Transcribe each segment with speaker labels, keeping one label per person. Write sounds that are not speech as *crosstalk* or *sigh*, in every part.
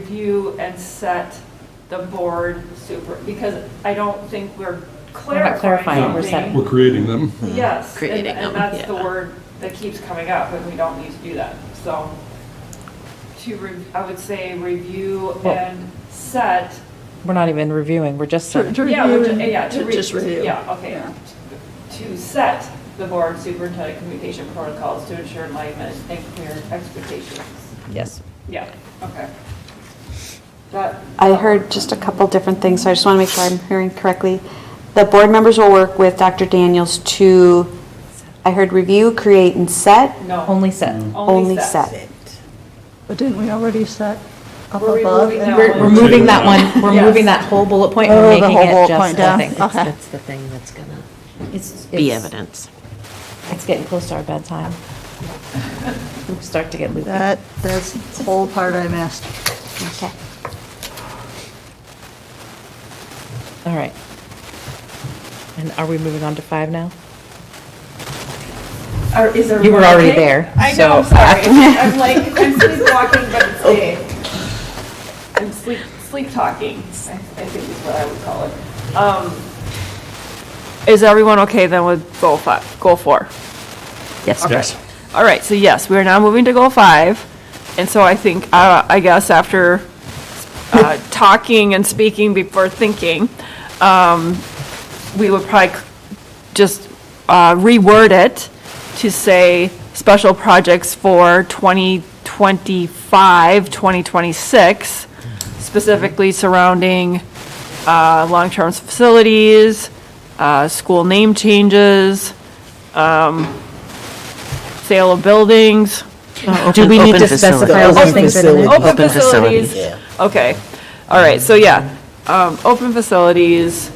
Speaker 1: review and set the board super, because I don't think we're
Speaker 2: not clarifying
Speaker 1: clarifying
Speaker 2: it, we're setting.
Speaker 1: something.
Speaker 2: We're
Speaker 3: We're creating them.
Speaker 1: Yes, and-
Speaker 4: Creating
Speaker 1: and
Speaker 4: them,
Speaker 1: that's the
Speaker 4: yeah.
Speaker 1: word that keeps coming up, and we don't need to do that, so. To, re- I would say review
Speaker 2: Well-
Speaker 1: and set,
Speaker 2: We're not even reviewing, we're just,
Speaker 4: To- to
Speaker 1: yeah, which-
Speaker 4: review and-
Speaker 1: yeah, to re-
Speaker 4: Just review.
Speaker 1: Yeah, okay. To set the board superintendent communication protocols to ensure alignment and clear expectations.
Speaker 2: yes.
Speaker 1: Yeah, okay. That,
Speaker 5: I heard just a couple different things, so I just want to make sure I'm hearing correctly. The board members will work with Dr. Daniels to, I heard review, create, and set,
Speaker 1: no.
Speaker 2: Only set.
Speaker 1: Mm.
Speaker 5: only set.
Speaker 4: But didn't we already set up
Speaker 1: We're
Speaker 4: above?
Speaker 1: removing
Speaker 4: and-
Speaker 1: that
Speaker 2: We're, we're moving that one, we're
Speaker 1: Yes.
Speaker 2: moving that whole bullet point,
Speaker 4: Oh,
Speaker 2: we're
Speaker 4: the
Speaker 2: making
Speaker 4: whole
Speaker 2: it
Speaker 4: bullet
Speaker 2: just
Speaker 4: point
Speaker 2: the
Speaker 4: down.
Speaker 2: thing.
Speaker 6: That's,
Speaker 4: Okay.
Speaker 6: that's the thing that's gonna
Speaker 2: It's-
Speaker 6: be
Speaker 2: it's-
Speaker 6: evidence.
Speaker 2: It's getting close to our bedtime. We Start to get loopy.
Speaker 4: That, that's the whole part I missed.
Speaker 5: Okay.
Speaker 2: All right. And are we moving on to five now?
Speaker 1: Or is there
Speaker 2: You were
Speaker 1: more to
Speaker 2: already
Speaker 1: take?
Speaker 2: there,
Speaker 1: I
Speaker 2: so-
Speaker 1: know,
Speaker 2: Oh.
Speaker 1: I'm sorry. I'm like, I'm sleepwalking, but it's day. I'm sleep, sleep talking, I I think is what I would call it. Um, Is everyone okay then with goal five, goal four?
Speaker 2: Yes.
Speaker 3: Yes.
Speaker 1: All right, so yes, we are now moving to goal five. And so I think, uh, I guess after uh, talking and speaking before thinking, um, we would probably c- just uh, reword it to say special projects for 2025, 2026, specifically surrounding uh, long-term facilities, uh, school name changes, um, sale of buildings,
Speaker 2: Do we need
Speaker 6: Open
Speaker 2: to
Speaker 6: facility.
Speaker 2: specify all those things in a minute?
Speaker 1: Open
Speaker 6: Open facilities.
Speaker 1: facilities, okay. All right, so yeah, um, open facilities,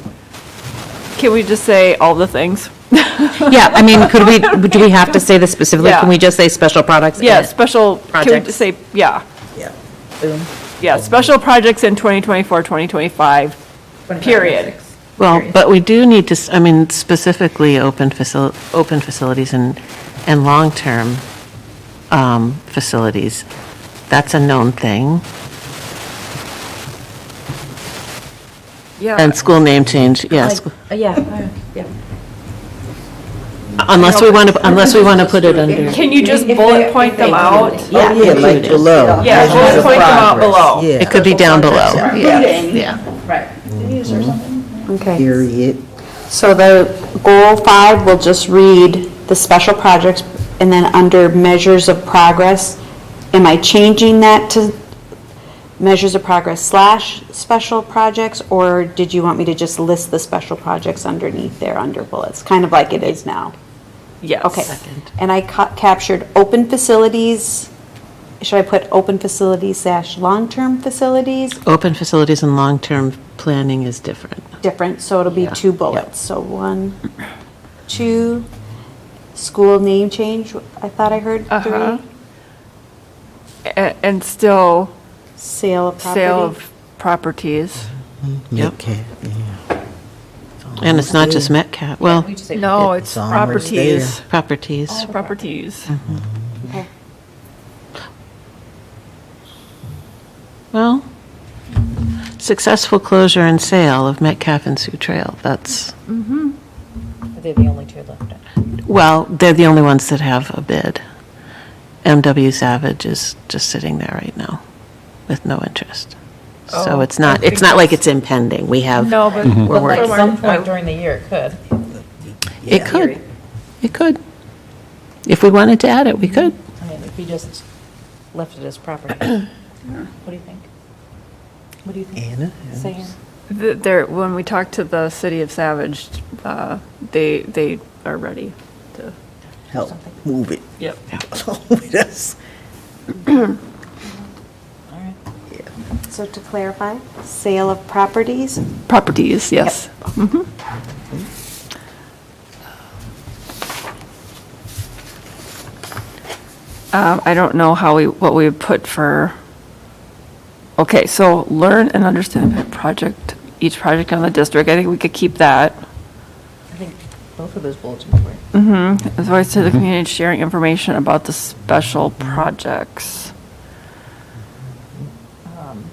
Speaker 1: can we just say all the things?
Speaker 6: *laughs*
Speaker 2: Yeah, I mean, could we, do we have to say this specifically?
Speaker 1: Yeah.
Speaker 2: Can we just say special products?
Speaker 1: Yeah, special, can we
Speaker 2: Projects.
Speaker 1: just say, yeah,
Speaker 6: Yeah.
Speaker 1: yeah, special projects in 2024, 2025, period.
Speaker 6: Well, but we do need to, s- I mean, specifically open facil, open facilities and, and long-term um, facilities. That's a known thing.
Speaker 1: Yeah,
Speaker 6: And school name change, yes.
Speaker 2: uh, Yeah.
Speaker 6: Unless we want to, unless we want to put *laughs* it under.
Speaker 1: can you just bullet point them out?
Speaker 6: Yeah,
Speaker 7: like below.
Speaker 1: Yeah, bullet point them out below.
Speaker 6: It could be down below.
Speaker 5: Okay.
Speaker 7: Period.
Speaker 5: So the goal five will just read the special projects, and then under measures of progress, am I changing that to measures of progress slash special projects, or did you want me to just list the special projects underneath there under bullets, kind of like it is now?
Speaker 1: Yes.
Speaker 5: Okay. And I ca- captured open facilities, should I put open facilities slash long-term facilities?
Speaker 6: Open facilities and long-term planning is different.
Speaker 5: Different, so it'll be
Speaker 6: Yeah.
Speaker 5: two bullets. So one, two, school name change, I thought I heard
Speaker 1: Uh-huh.
Speaker 5: three.
Speaker 1: A- And still
Speaker 5: Sale of
Speaker 1: sale
Speaker 5: property.
Speaker 1: of properties.
Speaker 6: Yep.
Speaker 7: Okay, yeah.
Speaker 6: And it's not just Metcalf, well,
Speaker 1: No, it's
Speaker 7: It's almost there.
Speaker 1: properties, Oh.
Speaker 6: properties.
Speaker 1: properties.
Speaker 5: Okay.
Speaker 6: Well, successful closure and sale of Metcalf and Sioux Trail, that's,
Speaker 2: They're the only two left.
Speaker 6: well, they're the only ones that have a bid. MW Savage is just sitting there right now with no interest. So it's not, it's not like it's impending, we have,
Speaker 1: No, but
Speaker 6: Mhm. we're
Speaker 2: At
Speaker 6: working.
Speaker 2: some point during the year, it could.
Speaker 6: It could, it could. If we wanted to add it, we could.
Speaker 2: I mean, if we just left it as property.
Speaker 4: *coughs*
Speaker 2: What do you think? What do you think?
Speaker 7: Anna?
Speaker 2: Saying,
Speaker 1: Th- There, when we talk to the city of Savage, uh, they, they are ready to.
Speaker 7: Help move it *laughs*
Speaker 1: Yep.
Speaker 7: along with us.
Speaker 2: all right.
Speaker 5: So to clarify, sale of properties,
Speaker 1: Properties, yes. Mm-hmm. Um, I don't know how we, what we would put for, okay, so learn and understand the project, each project on the district. I think we could keep that.
Speaker 2: I think both of those bulletins were.
Speaker 1: As well as to the community sharing information about the special projects.
Speaker 2: um,